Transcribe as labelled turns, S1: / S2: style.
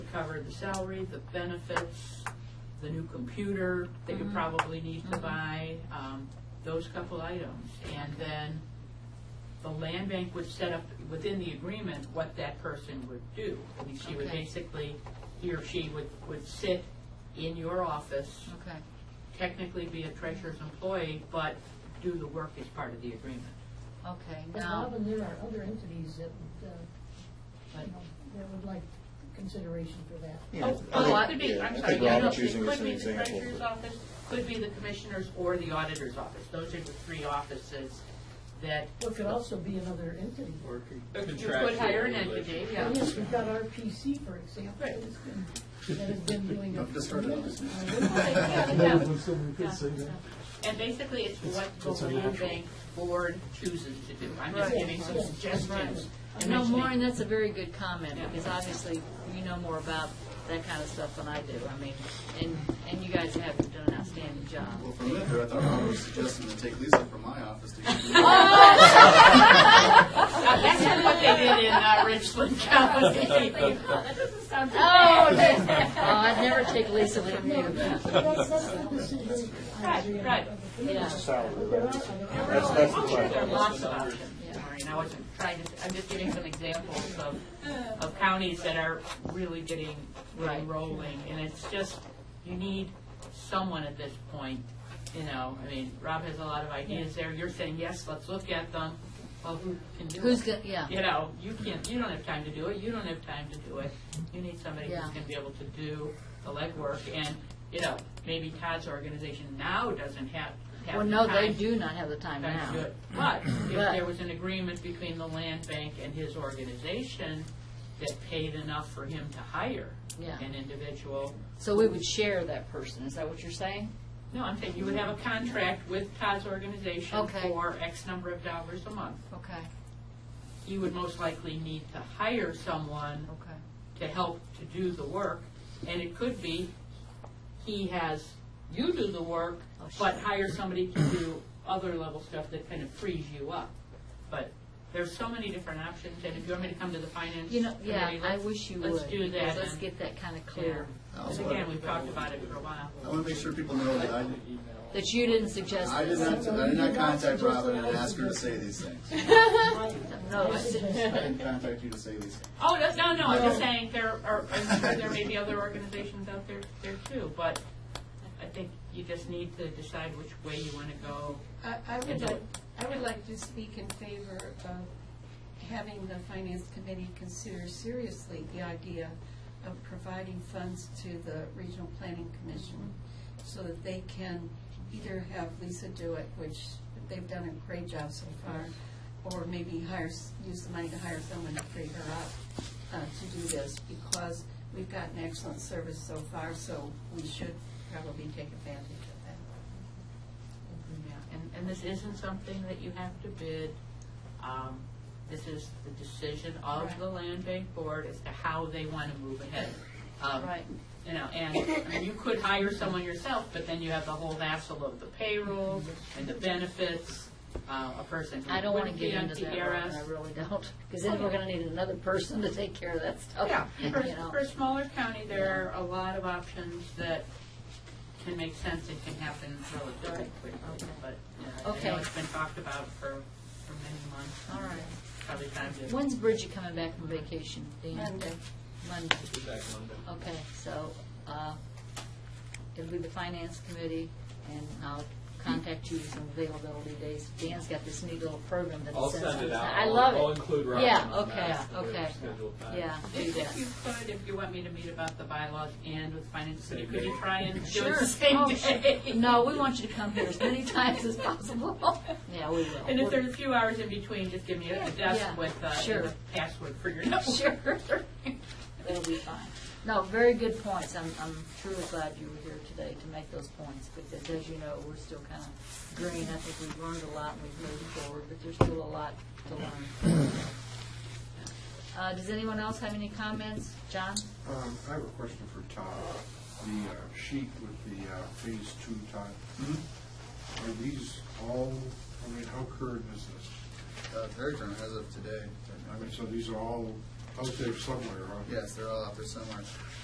S1: cover the salary, the benefits, the new computer that you probably need to buy, um, those couple items. And then the land bank would set up within the agreement what that person would do. I mean, she would
S2: Okay.
S1: basically, he or she would, would sit in your office,
S2: Okay,
S1: technically be a treasurer's employee, but do the work as part of the agreement.
S2: okay,
S3: But
S2: now,
S3: Robin, there are other entities that, would, uh,
S1: But
S3: you know, that would like consideration for that.
S4: Yeah,
S1: Oh,
S4: I
S1: oh, it
S4: think-
S1: could be,
S4: yeah,
S1: I'm
S4: I
S1: sorry,
S4: think
S1: yeah, no,
S4: Robin's
S1: it
S4: using this
S1: could
S4: as an
S1: be the
S4: example,
S1: treasurer's
S4: but-
S1: office, could be the commissioner's or the auditor's office. Those are the three offices that,
S3: Or it could also be another entity.
S5: Or it
S1: you
S5: could
S1: could hire an entity,
S5: relationship.
S1: yeah.
S3: Well, Yes, we've got RPC, for example, that's been- that has been doing a
S4: I've just heard of
S3: tremendous
S4: it.
S3: amount of work.
S1: Yeah,
S6: That
S1: yeah.
S6: was when someone could say that.
S1: And basically, it's what the land bank board chooses to do. I'm just
S2: Right.
S1: giving some
S3: Right.
S1: suggestions. and
S2: no,
S1: mentioning-
S2: Maureen, that's a very good comment,
S1: Yeah.
S2: because obviously, you know more about that kind of stuff than I do, I mean, and, and you guys have done an outstanding job.
S4: Well, from there, I thought Robin was suggesting to take Lisa from my office to.
S1: Uh, That's not what they did in uh, Richland County.
S2: Oh, okay. Oh, I'd never take Lisa from you.
S3: That's, that's the decision. I agree
S1: Right, right.
S3: on.
S2: Yeah.
S3: But there are other-
S4: that's the
S1: I'm sure
S4: plan.
S1: there are lots of options, Maureen. I wasn't trying to, I'm just giving some examples of, of counties that are really getting, really
S2: Right.
S1: rolling. And it's just, you need someone at this point, you know, I mean, Rob has a lot of ideas there. You're saying, yes, let's look at them. Well, who can do it?
S2: Who's gonna, yeah,
S1: You know, you can't, you don't have time to do it, you don't have time to do it. You need somebody who's
S2: Yeah.
S1: gonna be able to do the legwork, and, you know, maybe Todd's organization now doesn't have, have
S2: well,
S1: the
S2: no, they
S1: time-
S2: do not have the time
S1: time to do
S2: now.
S1: it. But if
S2: But-
S1: there was an agreement between the land bank and his organization that paid enough for him to hire
S2: Yeah.
S1: an individual,
S2: So we would share that person, is that what you're saying?
S1: no, I'm saying you would have a contract with Todd's organization
S2: Okay.
S1: for X number of dollars a month.
S2: Okay,
S1: He would most likely need to hire someone
S2: okay.
S1: to help to do the work, and it could be he has you do the work,
S2: Oh, sure.
S1: but hire somebody to do other level stuff that kind of frees you up. But there's so many different options, and if you want me to come to the finance
S2: You know,
S1: committee,
S2: yeah, I
S1: let's-
S2: wish you would.
S1: Let's do
S2: because
S1: that.
S2: Let's
S1: and-
S2: get that kind of
S1: yeah.
S2: clear,
S1: Because again, we've talked about it for a while.
S4: I want to make sure people know that I,
S2: that you didn't suggest
S4: I did
S2: this.
S4: not, I did not contact Robin and ask her to say these things.
S2: No,
S3: I
S2: I said-
S4: I
S3: suggest-
S4: didn't contact you to say these. things.
S1: Oh, that's, no, no, I'm just saying, there are, I'm sure there may be other organizations out there, there too, but I think you just need to decide which way you want to go.
S7: I I
S1: And
S7: would
S1: do
S7: like,
S1: it.
S7: I would like to speak in favor of having the Finance Committee consider seriously the idea of providing funds to the Regional Planning Commission so that they can either have Lisa do it, which they've done a great job so far, or maybe hire, s- use the money to hire someone to free her up uh, to do this, because we've gotten excellent service so far, so we should probably take advantage of that.
S1: Yeah, and, and this isn't something that you have to bid. Um, This is the decision of the land bank board as to how they want to move ahead. Um,
S2: Right.
S1: You know, and, I mean, you could hire someone yourself, but then you have the whole hassle of the payroll and the benefits, uh, a person
S2: I
S1: who
S2: don't want to
S1: wouldn't
S2: get
S1: be on
S2: into that, Robin, I
S1: TRS.
S2: really don't, because then we're gonna need another person to take care of that stuff.
S1: Yeah,
S2: you
S1: for,
S2: know.
S1: for a smaller county, there are a lot of options that can make sense and can happen relatively quickly, but, uh, you know, I know
S2: Okay.
S1: it's been talked about for, for many months.
S2: All right.
S1: Probably time to.
S2: When's Bridget coming back from vacation, Dean?
S7: Monday.
S2: Monday,
S5: Be back Monday.
S2: okay, so, uh, it'll be the finance committee, and I'll contact you with some availability days. Dan's got this neat little program that he
S5: I'll
S2: sends
S5: send it
S2: us.
S5: out.
S2: I
S5: I'll-
S2: love it.
S5: I'll include Robin
S2: Yeah,
S5: on that,
S2: okay,
S5: so there's
S2: okay.
S5: scheduled time.
S2: Yeah, do
S1: If
S2: that.
S1: if you could, if you want me to meet about the bylaws and with finance committee,
S5: Same
S1: could you
S5: day.
S1: try and do
S2: Sure.
S1: it the same
S2: Oh,
S1: day?
S2: No, we want you to come here as many times as possible. Yeah, we will.
S1: And if there's a few hours in between, just give me a a
S2: yeah,
S1: desk with, uh,
S2: sure.
S1: the password for your number.
S2: Sure. It'll be fine. No, very good points. I'm, I'm truly glad you were here today to make those points, because as you know, we're still kind of green. I think we've learned a lot and we've moved forward, but there's still a lot to learn. Uh, does anyone else have any comments? John?
S8: Um, I have a question for Todd. The uh, sheet with the uh, phase two, Todd. Are these all, I mean, how current is this?
S4: Uh, Very current as of today.
S8: I mean, so these are all out there somewhere, huh?
S4: Yes, they're all out there somewhere.